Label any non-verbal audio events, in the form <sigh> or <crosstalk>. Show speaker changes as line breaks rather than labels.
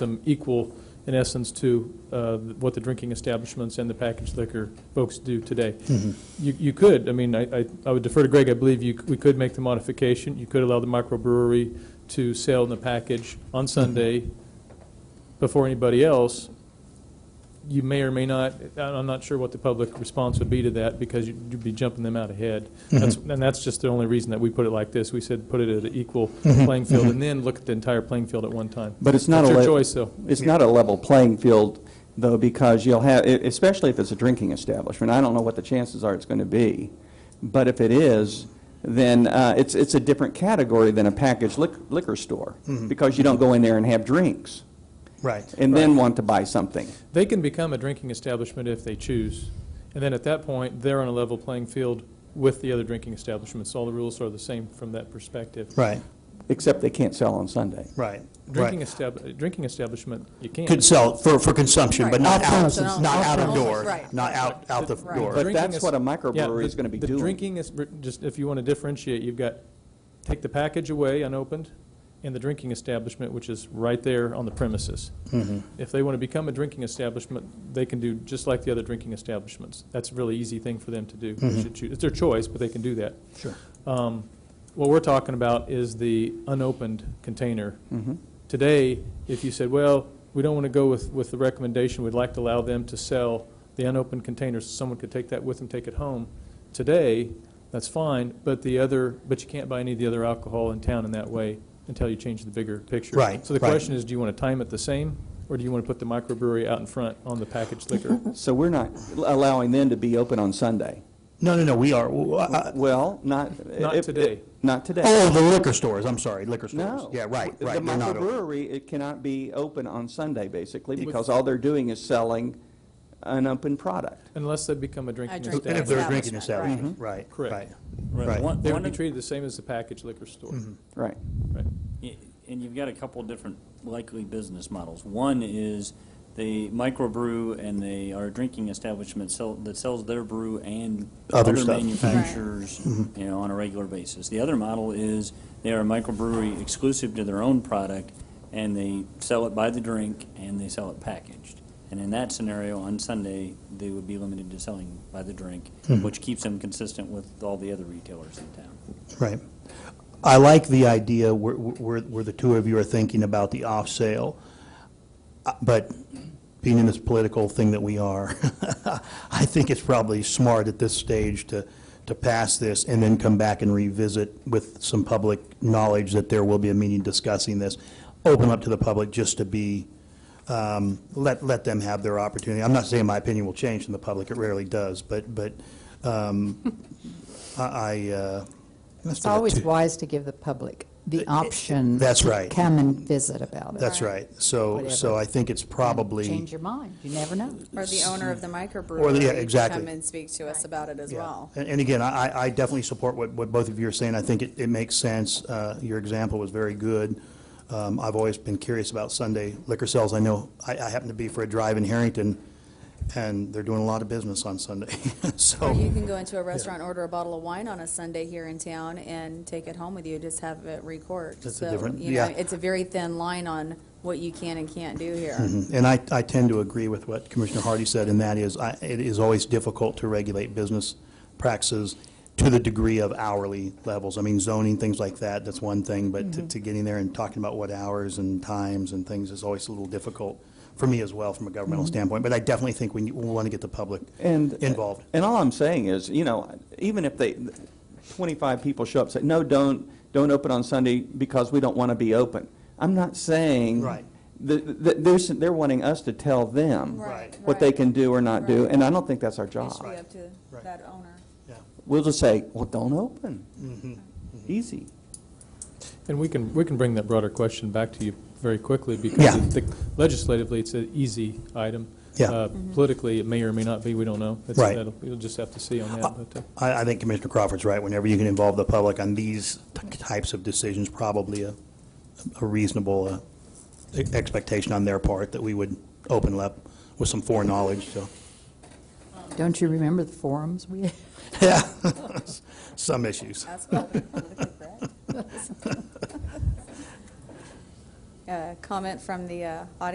them equal, in essence, to uh, what the drinking establishments and the packaged liquor folks do today. You you could, I mean, I I I would defer to Greg, I believe you, we could make the modification. You could allow the microbrewery to sell in the package on Sunday before anybody else. You may or may not, I- I'm not sure what the public response would be to that, because you'd you'd be jumping them out ahead. That's- And that's just the only reason that we put it like this. We said, put it at an equal playing field, and then look at the entire playing field at one time.
But it's not a.
It's your
le-
choice, though.
It's not a level playing field, though, because you'll have, e- especially if it's a drinking establishment, I don't know what the chances are it's going to be, but if it is, then uh, it's, it's a different category than a packaged lic- liquor store,
Mm-hmm.
because you don't go in there and have drinks,
Right.
and then want to buy something.
They can become a drinking establishment if they choose, and then at that point, they're on a level playing field with the other drinking establishments. All the rules are the same from that perspective.
Right,
Except they can't sell on Sunday.
right,
Drinking
right.
estab, drinking establishment, you can't.
Could sell for, for consumption, but
Right.
not
Off
out,
premises.
not out of
Off
door,
premises, right.
not out, out the
Right.
door.
But
Drinking
that's
is-
what a
Yeah,
microbrewery
the-
is going to be
the
doing.
drinking is, just if you want to differentiate, you've got, take the package away unopened, and the drinking establishment, which is right there on the premises. If they want to become a drinking establishment, they can do just like the other drinking establishments. That's a really easy thing for them to do. They should choose- It's their choice, but they can do that.
Sure.
Um, What we're talking about is the unopened container. Today, if you said, well, we don't want to go with, with the recommendation, we'd like to allow them to sell the unopened containers, someone could take that with them, take it home. Today, that's fine, but the other, but you can't buy any of the other alcohol in town in that way until you change the bigger picture.
Right,
So the
right.
question is, do you want to time it the same, or do you want to put the microbrewery out in front on the packaged
<laughs>
liquor?
So we're not allowing them to be open on Sunday.
No, no, no, we are, w- uh,
Well, not.
Not
if-
today.
Not today.
oh, the liquor stores, I'm sorry, liquor stores.
No.
Yeah, right,
The-
right,
The
they're not open.
microbrewery, it cannot be open on Sunday, basically, because all they're doing is selling an open product.
Unless they become a drinking
drink
And if
establishment.
they're drinking
Establishment,
establishment, right,
Correct.
right,
Right.
right.
One-
They
one
would be
of-
treated the same as the packaged liquor store.
Mm-hmm.
Right.
Right.
y- And you've got a couple different likely business models. One is they microbrew and they are a drinking establishment sell, that sells their brew and
Other stuff.
manufacturers, you know, on a regular basis. The other model is they are a microbrewery exclusive to their own product and they sell it by the drink and they sell it packaged. And in that scenario, on Sunday, they would be limited to selling by the drink, which keeps them consistent with all the other retailers in town.
Right. I like the idea where, where, where the two of you are thinking about the off-sale, Uh, but being in this political thing that we are, <laughs> I think it's probably smart at this stage to, to pass this and then come back and revisit with some public knowledge that there will be a meeting discussing this, open up to the public just to be, um, let, let them have their opportunity. I'm not saying my opinion will change in the public, it rarely does, but, but um, <laughs> I, I, uh. let's
It's
do that
always
too.
wise to give the public the option.
that's
to
right.
Come and visit about it.
That's right. So, so
Whatever.
I think it's probably,
Change your mind. You never know.
Or the owner of the
Or the- yeah,
microbrewery could
exactly.
come and speak to us about it as
yeah.
well.
And and again, I, I- I definitely support what, what both of you are saying. I think it, it makes sense. Uh, Your example was very good. Um, I've always been curious about Sunday liquor sales. I know, I, I happen to be for a drive in Harrington, and they're doing a lot of business on Sunday, <laughs>
Or you
so.
can go into a restaurant, order a bottle of wine on a Sunday here in town and take it home with you, just have it recorked.
That's a
So,
different-
you know,
yeah.
It's a very thin line on what you can and can't do here.
And I, I tend to agree with what Commissioner Hardy said, and that is, I, it is always difficult to regulate business practices to the degree of hourly levels. I mean, zoning, things like that, that's one thing, but to, to getting there and talking about what hours and times and things is always a little difficult for me as well, from a governmental standpoint, but I definitely think we, want to get the public
And.
involved.
And all I'm saying is, you know, even if they, 25 people show up, say, no, don't, don't open on Sunday because we don't want to be open. I'm not saying.
Right.
th- th- They're, s- they're wanting us to tell them.
Right,
What they
right.
can do or not do,
Right.
and I don't think that's our
It should
job.
be up to
Right.
that owner.
We'll just say, well, don't open.
Mm-hmm.
Easy.
And we can, we can bring that broader question back to you very quickly,
Yeah.
because I think legislatively, it's an easy item.
Yeah.
Uh,
Mm-hmm.
Politically, it may or may not be, we don't know. That's-
Right.
that'll- We'll just have to see on that, but, uh,
I, I think Commissioner Crawford's right, whenever you can involve the public on these t- types of decisions, probably a, a reasonable uh, e- expectation on their part that we would open up with some foreknowledge, so,
Don't you remember the forums we had?
yeah, <laughs> some issues.
That's <laughs> politically correct. Uh, Comment from the uh, audience